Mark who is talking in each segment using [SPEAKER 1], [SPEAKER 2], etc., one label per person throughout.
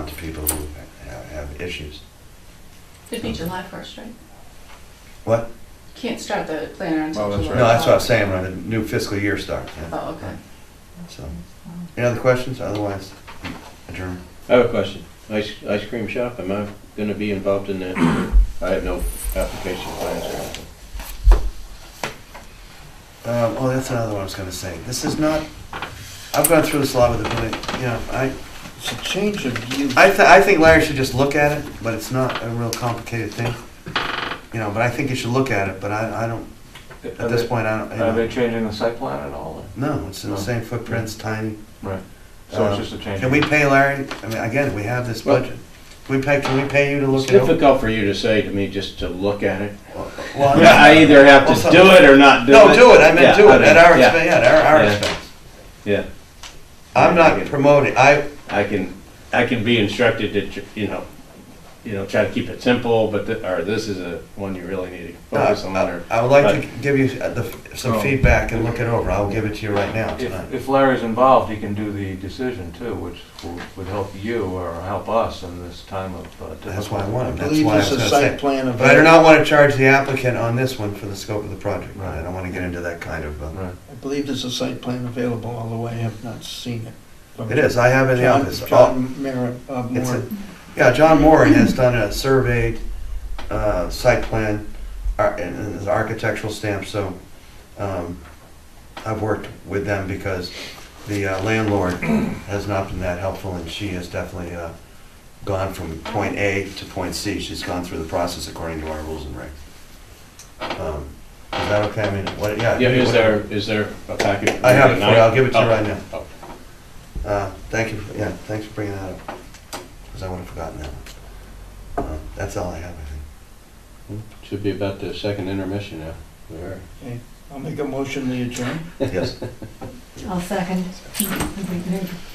[SPEAKER 1] to people who ha- have issues.
[SPEAKER 2] It'd be July first, right?
[SPEAKER 1] What?
[SPEAKER 2] Can't start the planner
[SPEAKER 3] Oh,
[SPEAKER 2] until
[SPEAKER 3] that's
[SPEAKER 2] July.
[SPEAKER 3] right.
[SPEAKER 1] No, that's what I was saying, when the new fiscal year starts. yeah.
[SPEAKER 2] Oh, okay.
[SPEAKER 1] So, any other questions? Otherwise, adjourn.
[SPEAKER 4] I have a question. Ice, ice cream shop, am I gonna be involved in that? I have no application plans or anything.
[SPEAKER 1] Um, oh, that's another one I was gonna say. This is not, I've gone through this a lot with the building, you know, I,
[SPEAKER 3] It's a change of view.
[SPEAKER 1] I, th- I think Larry should just look at it, but it's not a real complicated thing. You know, but I think you should look at it, but I, I don't, at this point, I don't, you
[SPEAKER 5] Are they
[SPEAKER 1] know.
[SPEAKER 5] changing the site plan at all?
[SPEAKER 1] No, it's in the same footprints, tiny.
[SPEAKER 5] Right. So
[SPEAKER 1] Uh,
[SPEAKER 5] it's just a change.
[SPEAKER 1] Can we pay Larry, I mean, again, we have this
[SPEAKER 4] Well-
[SPEAKER 1] budget. We pay, can we pay you to
[SPEAKER 4] It's
[SPEAKER 1] look it over?
[SPEAKER 4] difficult for you to say to me just to look at it.
[SPEAKER 1] Well,
[SPEAKER 4] I either have
[SPEAKER 1] Well,
[SPEAKER 4] to
[SPEAKER 1] some-
[SPEAKER 4] do it or not do it.
[SPEAKER 1] No, do it, I meant
[SPEAKER 4] Yeah,
[SPEAKER 1] do it,
[SPEAKER 4] know.
[SPEAKER 1] at our
[SPEAKER 4] Yeah,
[SPEAKER 1] expense, yeah, at our, our
[SPEAKER 4] Yeah.
[SPEAKER 1] expense.
[SPEAKER 4] Yeah,
[SPEAKER 1] I'm
[SPEAKER 4] I
[SPEAKER 1] not
[SPEAKER 4] get it.
[SPEAKER 1] promoting, I,
[SPEAKER 4] I can, I can be instructed to, tr- you know, you know, try to keep it simple, but, th- or this is a one you really need to focus on,
[SPEAKER 1] Uh, I
[SPEAKER 4] or,
[SPEAKER 1] I would like to give you the- some feedback and look it over, I'll give it to you right now
[SPEAKER 5] If
[SPEAKER 1] tonight.
[SPEAKER 5] if Larry's involved, he can do the decision too, which w- would help you or help us in this time of uh, difficulty.
[SPEAKER 1] That's why I
[SPEAKER 3] I
[SPEAKER 1] wanted, that's
[SPEAKER 3] believe
[SPEAKER 1] why I was
[SPEAKER 3] it's a
[SPEAKER 1] gonna
[SPEAKER 3] site
[SPEAKER 1] say.
[SPEAKER 3] plan of.
[SPEAKER 1] But I do not want to charge the applicant on this one for the scope of the project,
[SPEAKER 5] Right.
[SPEAKER 1] I don't want to get into that kind of, uh,
[SPEAKER 5] Right.
[SPEAKER 3] I believe there's a site plan available, although I have not seen it. But
[SPEAKER 1] it is, I have it in the
[SPEAKER 3] John-
[SPEAKER 1] office. All-
[SPEAKER 3] John Merritt, uh,
[SPEAKER 1] It's a-
[SPEAKER 3] Moore,
[SPEAKER 1] Yeah, John Moore has done a surveyed, uh, site plan, ar- and and his architectural stamp, so, um, I've worked with them because the uh, landlord has not been that helpful, and she has definitely, uh, gone from point A to point C. She's gone through the process according to our rules and regs. Um, Is that okay? I mean, what, yeah.
[SPEAKER 4] yeah, is
[SPEAKER 1] what-
[SPEAKER 4] there, is there a package?
[SPEAKER 1] I have it for you. I'll give it to you
[SPEAKER 4] Oh,
[SPEAKER 1] right now.
[SPEAKER 4] oh.
[SPEAKER 1] Uh, Thank you, for- yeah, thanks for bringing that up, because I would have forgotten that one. Uh, That's all I have, I think.
[SPEAKER 4] Should be about the second intermission now. We are.
[SPEAKER 3] I'll make a motion, we adjourn.
[SPEAKER 1] Yes.
[SPEAKER 6] I'll second.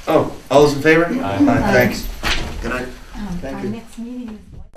[SPEAKER 1] Oh, all those in favor?
[SPEAKER 5] Aye.
[SPEAKER 1] Thanks. Good night.
[SPEAKER 6] Um,
[SPEAKER 3] Thank
[SPEAKER 6] Our
[SPEAKER 3] you.
[SPEAKER 6] next meeting is.